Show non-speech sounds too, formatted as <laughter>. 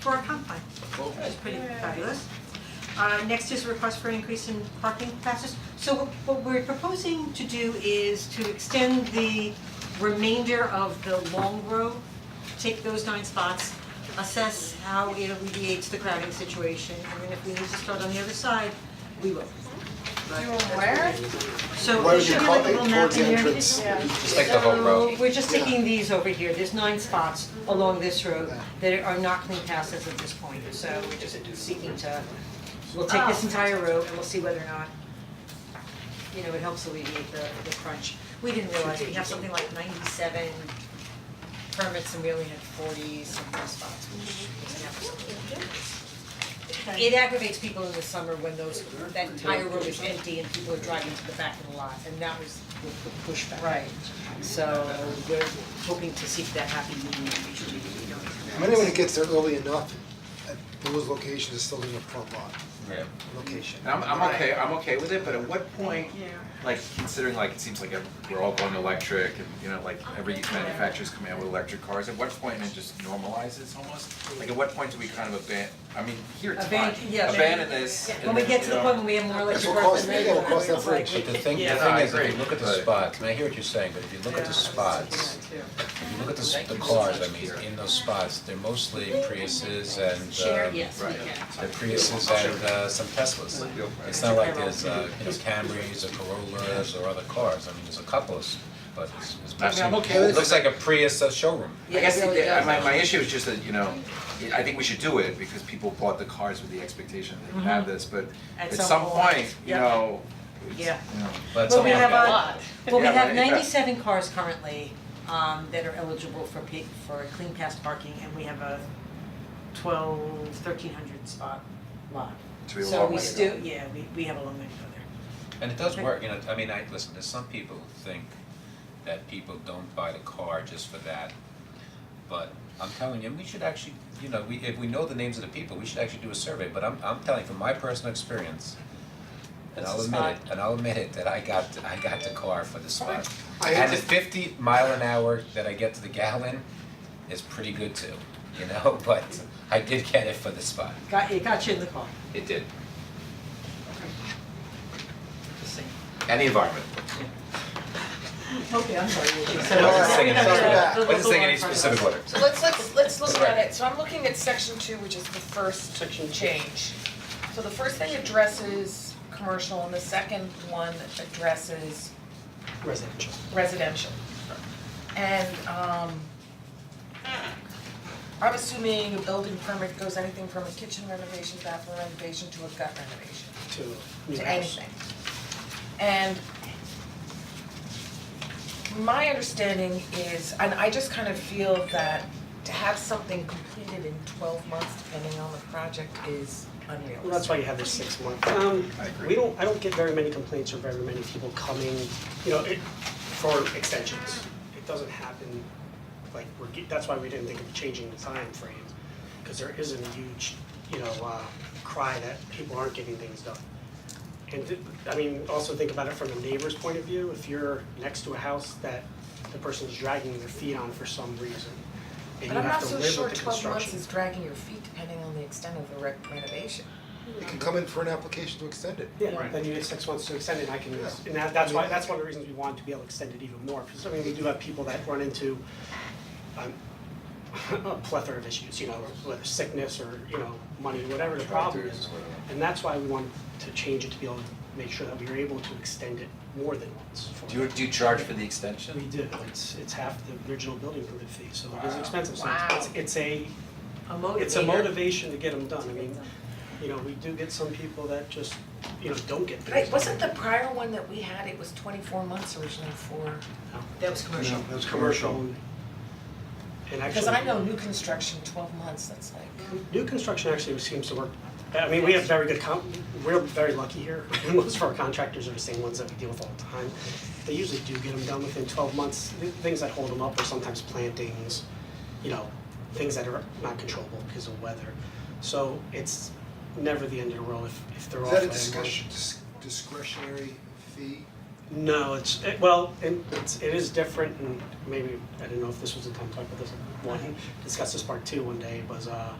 for a comp plan, which is pretty fabulous. Uh, next is a request for an increase in parking passes. So what, what we're proposing to do is to extend the remainder of the long row, take those nine spots, assess how it alleviates the crowding situation, and then if we need to start on the other side, we will. where? So there Why would you should be call like a it little map towards in the there. entrance? Yeah. Just like the whole row. So we're just taking these over here, there's nine spots along this road that are not clean passes at this point, so we're just seeking to, we'll take this entire road and we'll see whether or not, you know, it helps alleviate the the crunch. We didn't realize we have something like ninety-seven permits and we only had forty something spots, which is never something. It aggravates people in the summer when those, that entire road is empty and people are driving to the back of the lot, and that was the the pushback. Right. So we're hoping to seek that happy medium, which we don't. When it gets there early enough, at those locations, it's still in the front lot Yeah. location. And I'm I'm okay, I'm okay with it, but at what point, like considering like it seems like ev- we're all going electric and you know, like every manufacturer's coming out with electric cars, at what point it just normalizes almost? Like at what point do we kind of aban- I mean, here it's fine, Aban- yeah, abandon this and When we then, get you to the know- point when we have more electric It'll cars cost, than it'll regular, cost that it's like, bridge. But the thing, the Yeah, no, thing I is, if agree, you look at the but- spots, and I hear what you're saying, but if you look at the spots, if you look at the, s- the cars, I mean, in those spots, they're mostly Priuses share, and, um, yes, we can. they're Priuses and, uh, some Teslas. It's not like there's, uh, you know, Camrys or Corollas or other cars, I mean, there's a couple of, s- but it's, it's I mean, I'm mostly- okay with it looks like a Prius uh, showroom. I guess Yeah, it really the- does. my my issue is just that, you know, I think we should do it because people bought the cars with the expectation that they would have this, but Mm-hmm. At at some some point, point, you yeah. know, it's, you Yeah. know, But it's Well, we only have got- a, well, we Yeah, have right, yeah. ninety-seven cars currently, um, that are eligible for pa- for clean pass parking, and we have a twelve, thirteen hundred spot lot. So we have a long way to So we go. still, yeah, we, we have a long way to go there. And it does work, you know, I mean, I, listen, there's some people who think that people don't buy the car just for that. But I'm telling you, we should actually, you know, we, if we know the names of the people, we should actually do a survey, but I'm, I'm telling you, from my personal experience, and I'll It's a admit it, and I'll admit it, that I got, I got the car for the spot. I had And the to- fifty mile an hour that I get to the gallon is pretty good too, you know, <laughs> but I did get it for the spot, Got, it got you in the car. it did, Just saying. any environment. Okay, I'm <laughs> sorry, what you I said. wasn't <laughs> singing Sorry, anything. the- the I wasn't saying any local one. specific order. So let's, let's, let's look at it, so I'm looking at section two, which is the first change. So the first thing addresses commercial and the second one addresses Residential. residential. And um I'm assuming a building permit goes anything from a kitchen renovation, bathroom renovation to a gut renovation, To new to house. anything. And my understanding is, and I just kind of feel that to have something completed in twelve months, depending on the project, is unrealistic. Well, that's why you have this six month. Um, I agree. we don't, I don't get very many complaints or very many people coming, you know, it, for extensions. It doesn't happen, like, we're, ge- that's why we didn't think of changing the time frame, cause there isn't a huge, you know, uh, cry that people aren't getting things done. And th- I mean, also think about it from the neighbor's point of view, if you're next to a house that the person's dragging their feet on for some reason, and But you I'm not have to so live with the sure construction. twelve months is dragging your feet, depending on the extent of the re- renovation. You can come in for an application to extend it. Yeah, then you get six months to extend it, and I can, and that, that's why, that's one of the reasons we want to be able to extend it even more, because I mean, we do have people that run into um <laughs> a plethora of issues, you know, whether sickness or, you know, money, whatever the problem Drive-throughs is. or whatever. And that's why we wanted to change it to be able to make sure that we were able to extend it more than once for Do you, do you charge for the extension? We do, it's, it's half the original building permit fee, so it is Wow. expensive, so it's, Wow. it's a, A motivator. it's a motivation to get them done, I mean, you know, we do get some people that just, you know, don't get things But I- done. wasn't the prior one that we had, it was twenty-four months originally for, That was commercial. No, that's And actually. because I know new construction, twelve months, that's like, New construction actually seems to work, I mean, we have very good com, we're very lucky here, <laughs> most of our contractors are the same ones that we deal with all the time. They usually do get them done within twelve months, Th- things that hold them up are sometimes plantings, you know, things that are not controllable because of weather. So it's never the end of the world if, if they're Is off. that a by month. discretion, dis- discretionary fee? No, it's, it- well, it, it's, it is different and maybe, I don't know if this was the time to talk about this one, discuss this part two one day, was, uh,